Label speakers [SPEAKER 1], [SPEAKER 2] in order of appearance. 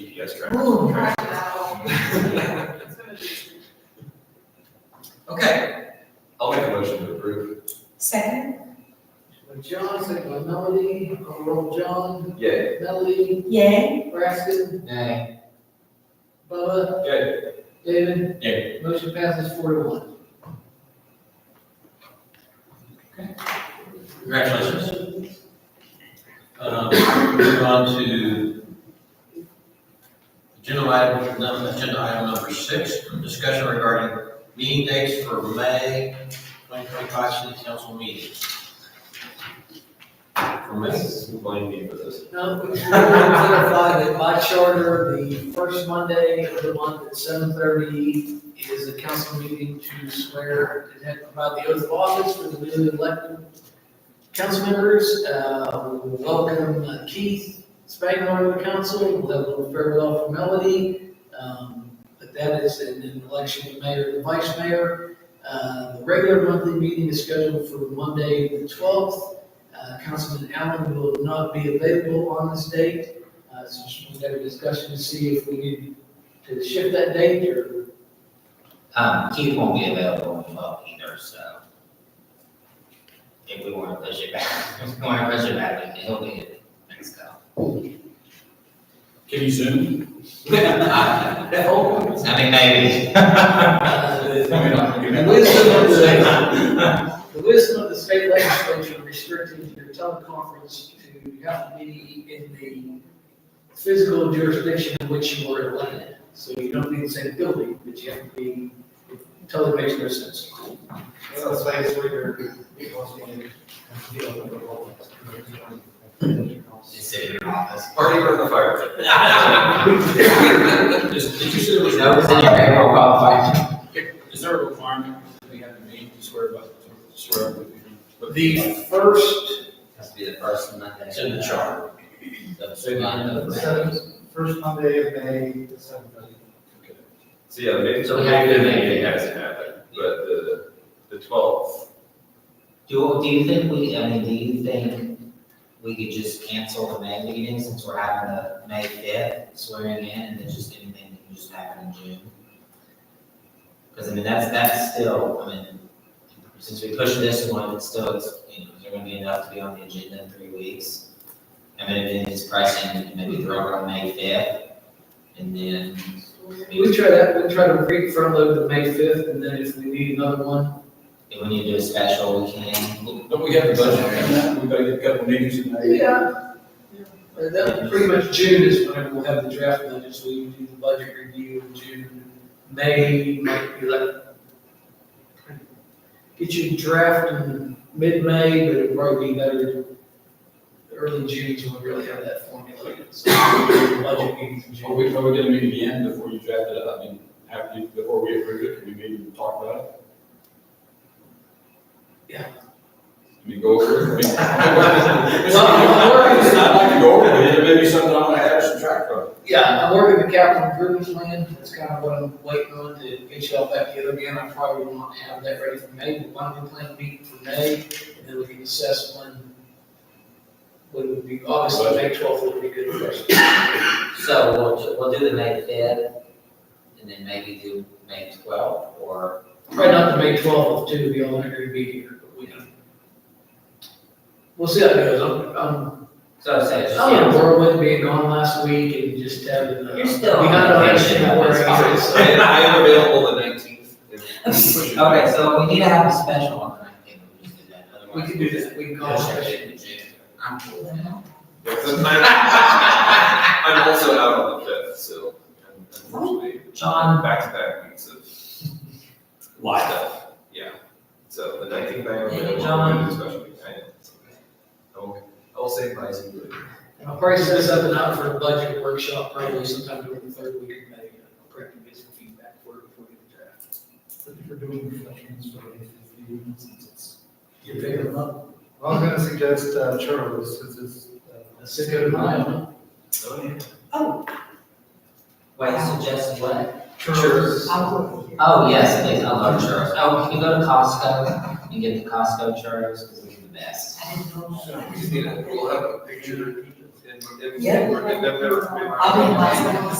[SPEAKER 1] GPS
[SPEAKER 2] Ooh,
[SPEAKER 1] tracker. Okay, I'll make a motion to approve.
[SPEAKER 3] Second?
[SPEAKER 4] John, second by Melody, call roll John,
[SPEAKER 1] Yay.
[SPEAKER 4] Melody,
[SPEAKER 3] Yay.
[SPEAKER 4] Braxton,
[SPEAKER 5] Nay.
[SPEAKER 4] Bubba,
[SPEAKER 1] Yay.
[SPEAKER 4] David.
[SPEAKER 5] Yay.
[SPEAKER 4] Motion passes four to one.
[SPEAKER 5] Congratulations. Um, Move on to agenda item, num- agenda item number six, discussion regarding meeting dates for May 2025 city council meetings. For May,
[SPEAKER 1] Mrs. Blaine for this.
[SPEAKER 4] Now, we should clarify that by charter, the first Monday of the month at seven thirty is a council meeting to swear and have provide the oath of office for the newly elected council members. Uh, we welcome uh, Keith Spangler to the council, we'll have a little farewell for Melody. Um, but that is an an election of mayor and vice mayor. Uh, the regular monthly meeting is scheduled for Monday, the twelfth. Uh, Councilman Allen will not be available on this date, uh, so just want to have a discussion to see if we need to shift that date or.
[SPEAKER 6] Um, Keith won't be available in twelve either, so. If we wanna push it back, if we wanna push it back, we can- he'll be in next go.
[SPEAKER 7] Can you zoom?
[SPEAKER 4] Oh.
[SPEAKER 6] I mean, maybe.
[SPEAKER 4] uh, The wisdom of the, the wisdom of the state legislature restricting your teleconference to, you have to be in the physical jurisdiction in which you were elected. So you don't need the same building, but you have to be, it totally makes no sense.
[SPEAKER 6] Just sitting in your office.
[SPEAKER 1] Party burn the fire.
[SPEAKER 7] Is, did you say there was,
[SPEAKER 6] No, it's in your payroll qualified.
[SPEAKER 7] is there a requirement that we have to meet to swear about, to swear? about the-
[SPEAKER 4] The first
[SPEAKER 6] Has to be the first Monday.
[SPEAKER 5] it's in the charter.
[SPEAKER 6] So you know,
[SPEAKER 8] First Monday of May, the seventh.
[SPEAKER 1] So yeah, maybe
[SPEAKER 6] So we have to make it.
[SPEAKER 1] It hasn't happened, but the, the twelfth,
[SPEAKER 6] Do, do you think we, I mean, do you think we could just cancel the May meeting since we're having the May fifth swearing in and then just anything that can just happen in June? Cause I mean, that's, that's still, I mean, since we pushed this one, it's still, it's, you know, is there gonna be enough to be on the agenda in three weeks? I mean, if it's pressing, we can maybe throw it on May fifth and then.
[SPEAKER 4] We try that, we try to re front load the May fifth, and then if we need another one,
[SPEAKER 6] If we need to do a special, we can.
[SPEAKER 7] Don't we have the budget on that? We've got to get a couple meetings in May.
[SPEAKER 4] yeah. Uh, That, pretty much June is whenever we'll have the draft budget, so we can do the budget review in June, May, might be like. Get your draft in mid-May, but it'd probably be better early June, so we really have that formulated, so. Budget meetings in
[SPEAKER 7] Are
[SPEAKER 4] June.
[SPEAKER 7] we, are we gonna meet again before you draft it up? I mean, have you, before we approve it, can we meet and talk about it?
[SPEAKER 4] Yeah.
[SPEAKER 7] I mean, go over it. I mean, It's not, it's not like to go over it, it may be something I'm gonna add or subtract from.
[SPEAKER 4] Yeah, I'm working the capital improvement plan, that's kind of what I'm waiting on to get y'all back together again, I probably want to have that ready for May, but why don't we plan a meeting for May, and then we can assess when, when would be, obviously, May twelfth would be good for us.
[SPEAKER 6] So we'll, ju- we'll do the May fifth, and then maybe do May twelfth, or,
[SPEAKER 4] Probably not the May twelfth, too, to be all agree to be here, but we don't. We'll see how it goes, I'm, I'm,
[SPEAKER 6] so say it's
[SPEAKER 4] I'm in a
[SPEAKER 6] just.
[SPEAKER 4] whirlwind Oh, being gone last week and just having, uh,
[SPEAKER 6] You're still
[SPEAKER 4] we got
[SPEAKER 6] on
[SPEAKER 4] a
[SPEAKER 6] vacation,
[SPEAKER 4] lot of
[SPEAKER 6] that's
[SPEAKER 4] shit
[SPEAKER 6] fine.
[SPEAKER 4] to worry
[SPEAKER 1] and
[SPEAKER 4] about,
[SPEAKER 1] I am available the nineteenth.
[SPEAKER 6] Okay, so we need to have a special on the nineteenth, we just did that,
[SPEAKER 4] so
[SPEAKER 6] otherwise.
[SPEAKER 4] We can do that, we can call a special.
[SPEAKER 6] in June. I'm cool with that.
[SPEAKER 1] I'm also out on the fifth, so unfortunately,
[SPEAKER 6] John,
[SPEAKER 1] back to back weeks of stuff, yeah. So the nineteenth I am
[SPEAKER 6] Hey,
[SPEAKER 1] available,
[SPEAKER 6] John.
[SPEAKER 1] I'm especially, I am. it's okay. I will, I will save my seat later.
[SPEAKER 4] I'll probably set something up for a budget workshop probably sometime during the third week of May. I'll prep and get some feedback for it before we draft.
[SPEAKER 8] If you're doing reflections for eight fifteen, since it's.
[SPEAKER 4] You picking them up?
[SPEAKER 8] I was gonna suggest uh, churros, since it's. uh,
[SPEAKER 4] Let's just go to mine.
[SPEAKER 1] Oh, yeah.
[SPEAKER 6] wait, suggest what?
[SPEAKER 1] Churros.
[SPEAKER 6] Oh, yes, please, I love churros. Oh, can you go to Costco and get the Costco churros, because they're the best.
[SPEAKER 1] We just need a, we'll have a picture. and, and.
[SPEAKER 2] Yeah.
[SPEAKER 1] and they're- they're-
[SPEAKER 2] I'll be in my